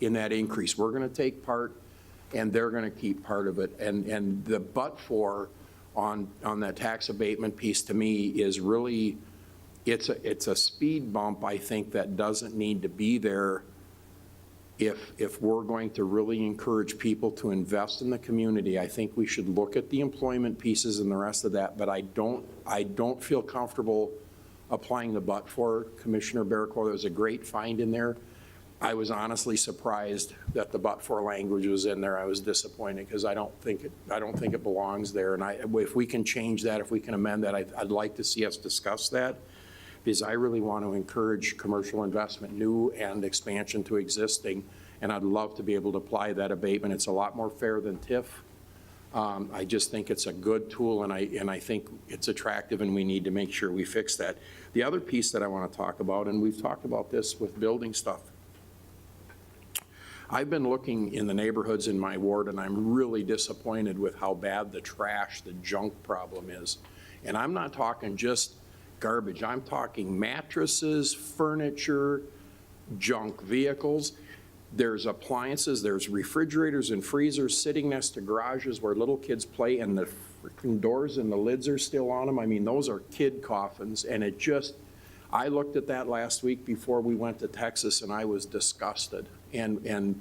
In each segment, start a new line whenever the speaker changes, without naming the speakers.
in that increase. We're going to take part, and they're going to keep part of it. And, and the but-for on, on that tax abatement piece, to me, is really, it's a, it's a speed bump, I think, that doesn't need to be there if, if we're going to really encourage people to invest in the community, I think we should look at the employment pieces and the rest of that, but I don't, I don't feel comfortable applying the but for Commissioner Baracore. There was a great find in there. I was honestly surprised that the but for language was in there. I was disappointed because I don't think, it I don't think it belongs there. And I, if we can change that, if we can amend that, I'd, I'd like to see us discuss that because I really want to encourage commercial investment, new and expansion to existing, and I'd love to be able to apply that abatement. It's a lot more fair than TIF. Um, I just think it's a good tool, and I, and I think it's attractive, and we need to make sure we fix that. The other piece that I want to talk about, and we've talked about this with building stuff, I've been looking in the neighborhoods in my ward, and I'm really disappointed with how bad the trash, the junk problem is. And I'm not talking just garbage, I'm talking mattresses, furniture, junk vehicles. There's appliances, there's refrigerators and freezers sitting next to garages where little kids play, and the freaking doors and the lids are still on them. I mean, those are kid coffins, and it just, I looked at that last week before we went to Texas, and I was disgusted. And, and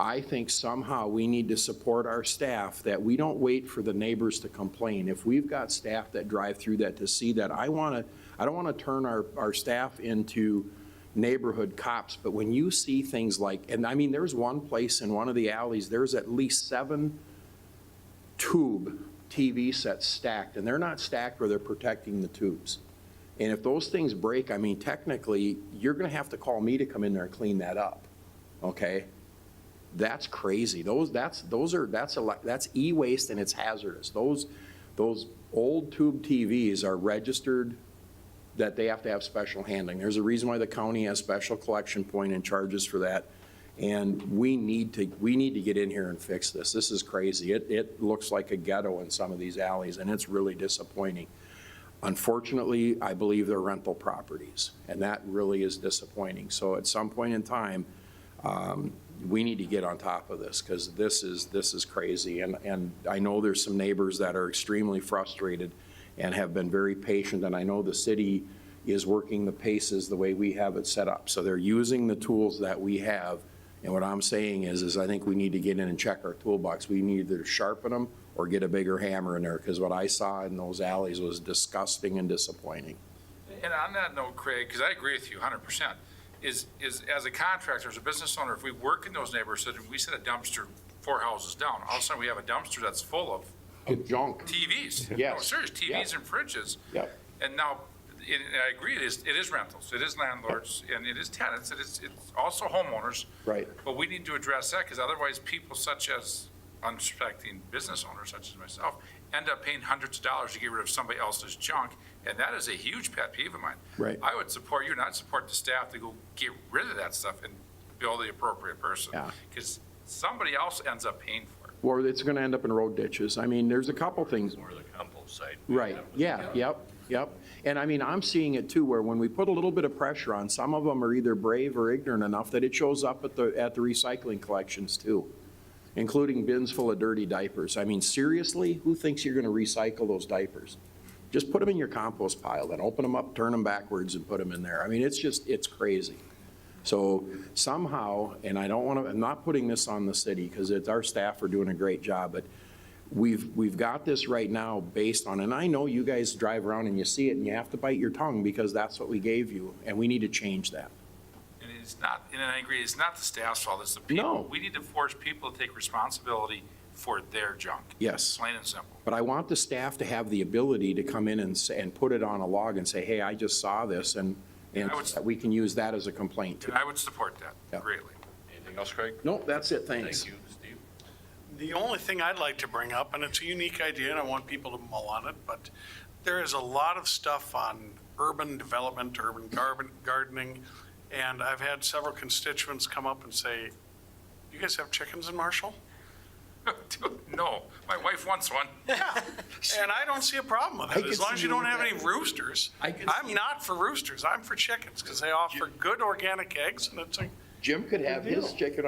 I think somehow we need to support our staff, that we don't wait for the neighbors to complain. If we've got staff that drive through that to see that, I want to, I don't want to turn our, our staff into neighborhood cops, but when you see things like, and I mean, there's one place in one of the alleys, there's at least seven tube TV sets stacked, and they're not stacked where they're protecting the tubes. And if those things break, I mean, technically, you're gonna have to call me to come in there and clean that up, okay? That's crazy. Those, that's, those are, that's a, lot- that's e-waste and it's hazardous. Those, those old tube TVs are registered that they have to have special handling. There's a reason why the county has special collection point and charges for that. And we need to, we need to get in here and fix this. This is crazy. It, it looks like a ghetto in some of these alleys, and it's really disappointing. Unfortunately, I believe they're rental properties, and that really is disappointing. So at some point in time, um, we need to get on top of this, because this is, this is crazy. And, and I know there's some neighbors that are extremely frustrated and have been very patient, and I know the city is working the paces the way we have it set up. So they're using the tools that we have, and what I'm saying is, is I think we need to get in and check our toolbox. We need to either sharpen them or get a bigger hammer in there, because what I saw in those alleys was disgusting and disappointing.
And on that note, Craig, because I agree with you 100%, is, is as a contractor, as a business owner, if we work in those neighborhoods, and we set a dumpster four houses down, all of a sudden we have a dumpster that's full of
Junk.
TVs. No,
Yes.
serious, TVs and fridges.
Yep.
And now, and and I agree, it is, it is rentals, it is landlords, and it is tenants, it is, it's also homeowners.
Right.
But we need to address that, because otherwise people such as unsuspecting business owners such as myself end up paying hundreds of dollars to get rid of somebody else's junk, and that is a huge pet peeve of mine.
Right.
I would support you, and I'd support the staff to go get rid of that stuff and bill the appropriate person.
Yeah.
Because somebody else ends up paying for it.
Or it's gonna end up in road ditches. I mean, there's a couple things.
Or the compost site.
Right, yeah, yep, yep. And I mean, I'm seeing it too, where when we put a little bit of pressure on, some of them are either brave or ignorant enough that it shows up at the, at the recycling collections too, including bins full of dirty diapers. I mean, seriously, who thinks you're gonna recycle those diapers? Just put them in your compost pile, then open them up, turn them backwards and put them in there. I mean, it's just, it's crazy. So somehow, and I don't wanna, I'm not putting this on the city, because it's, our staff are doing a great job, but we've, we've got this right now based on, and I know you guys drive around and you see it and you have to bite your tongue because that's what we gave you, and we need to change that.
And it's not, and I agree, it's not the staff's fault, it's the people.
No.
We need to force people to take responsibility for their junk.
Yes.
Plain and simple.
But I want the staff to have the ability to come in and, s- and put it on a log and say, hey, I just saw this, and, and
I would s-
we can use that as a complaint too.
And I would support that
Yeah.
greatly.
Anything else, Craig?
Nope, that's it, thanks.
Thank you, Steve.
The only thing I'd like to bring up, and it's a unique idea, and I want people to mull on it, but there is a lot of stuff on urban development, urban garden- gardening, and I've had several constituents come up and say, you guys have chickens in Marshall?
Dude, No, my wife wants one.
Yeah, and I don't see a problem with
I
it,
can
as long as
see
you
you
don't
with
have any
that.
roosters.
I can see-
I'm not for roosters, I'm for chickens, because they offer good organic eggs, and it's a
Jim could have his chicken